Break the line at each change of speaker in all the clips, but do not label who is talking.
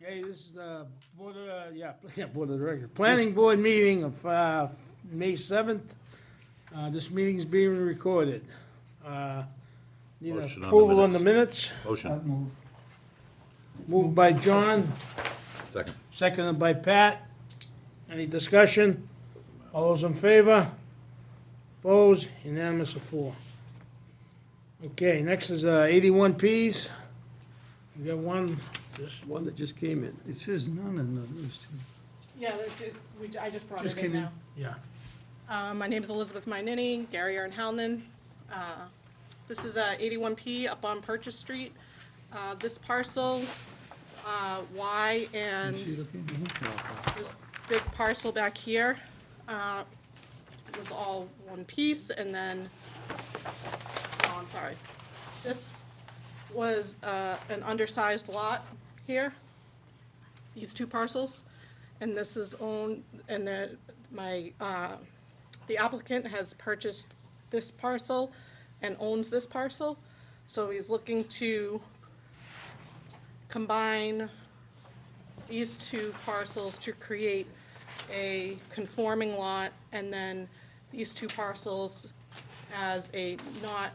this is the Board of, uh, yeah, yeah, Board of Directors. Planning Board meeting of uh, May 7th. Uh, This meeting is being recorded. Uh, Need
Motion on the
approval on the minutes,
Motion,
move.
moved by John,
second.
seconded by Pat. Any discussion? All those in favor? Opposed? Unanimous of four. Okay, next is uh, 81Ps. We got one, just
One that just came in.
It says none in the, it's-
Yeah, that's just, we, I just brought
Just
it
came
in
in.
now.
yeah.
Uh, my name is Elizabeth Minini, Gary Arnhalen. Uh, This is uh, 81P up on Purchase Street. Uh, This parcel, uh, Y and
is she looking?
this big parcel back here uh, was all one piece, and then, oh, I'm sorry. This was uh, an undersized lot here, these two parcels, and this is owned, and the, my, uh, the applicant has purchased this parcel and owns this parcel, so he's looking to combine these two parcels to create a conforming lot, and then these two parcels as a not,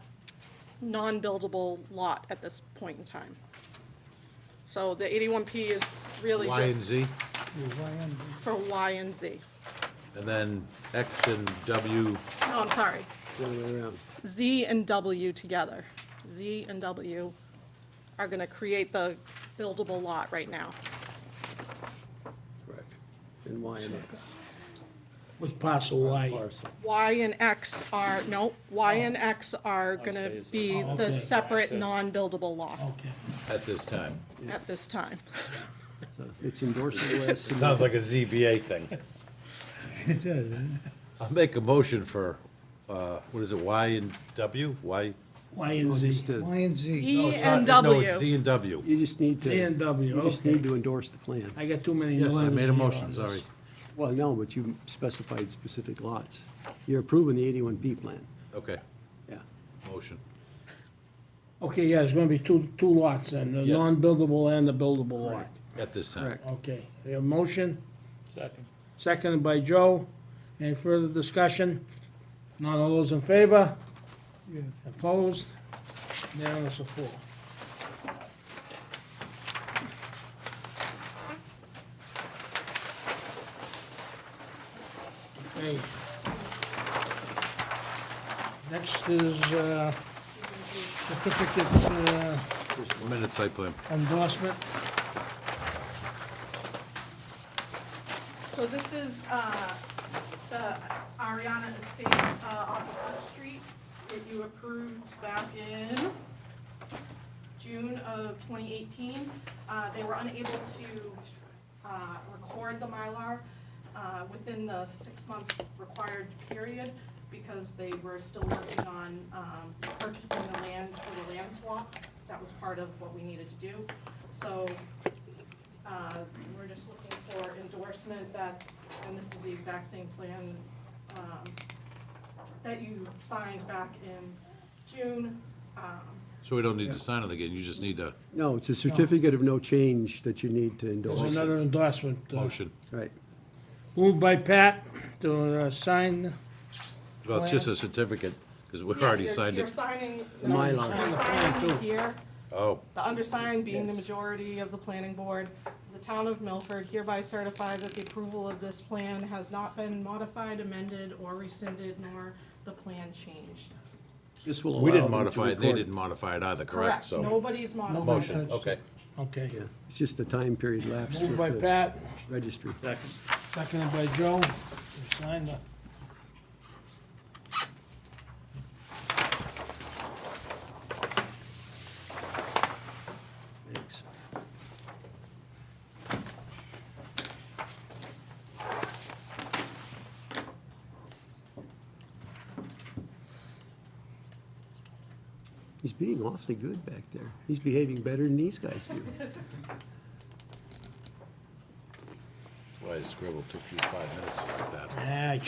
non-buildable lot at this point in time. So the 81P is really
Y and
just
Z,
Why am
for Y and Z.
and then X and W,
No, I'm sorry,
The other way around.
Z and W together. Z and W are gonna create the buildable lot right now.
Correct. And Y and X.
With parcel Y.
Parcel.
Y and X are, no, Y and X are gonna be
Oh,
the
okay.
separate, non-buildable lot
Okay.
at this time.
at this time.
So It's endorsing the last.
Sounds like a ZBA thing.
I- It does, doesn't it?
I'll make a motion for, uh, what is it, Y and W, Y?
Y and
You just
Z.
did.
Y and Z.
E
It's not-
and
No, it's
W.
Z and W.
You just need
Z and
to,
W,
you just
okay.
need to endorse the plan.
I got too many.
Yes, I
letters
made
here
a motion,
on this.
sorry.
Well, no, but you specified specific lots. You're approving the 81B plan.
Okay,
Yeah.
motion.
Okay, yeah, it's gonna be two, two lots then, the
Yes.
non-buildable and the buildable lot.
At this time.
Correct.
Okay, we have a motion? Second. Seconded by Joe. Any further discussion? None of those in favor?
Yeah.
Opposed? Unanimous of four. Okay. Next is uh, certificate uh,
One minute site plan.
endorsement.
So this is, uh, the Ariana Estates, uh, off of Fourth Street that you approved back in June of twenty eighteen. Uh, they were unable to, uh, record the Mylar, uh, within the six-month required period because they were still working on, um, purchasing the land for the land swap. That was part of what we needed to do. So uh, We're just looking for endorsement that, and this is the exact same plan um, that you signed back in June. Um,
So we don't need to sign it again, you just need a
No, it's a certificate of no change that you need to
There's
endorse.
another endorsement. uh,
motion.
Right.
Moved by Pat to uh, sign,
Well, it's just a certificate, because we already
you're-
signed
You're
it.
signing.
My
you're
line.
signing here.
Oh,
The undersigned being the majority of the planning board, the town of Milford hereby certify that the approval of this plan has not been modified, amended, or rescinded, nor the plan changed.
This will allow
we didn't
them to
modify it, they
record.
didn't modify it either, correct?
Correct,
So,
nobody's modified.
motion, okay.
okay.
Yeah, it's just the time period lapse
Moved
with
by
the
Pat,
registry.
seconded by Joe, to sign the.
Thanks. He's being awfully good back there. He's behaving better than these guys do.
Well, I scribbled, took you five minutes to write that.
Yeah,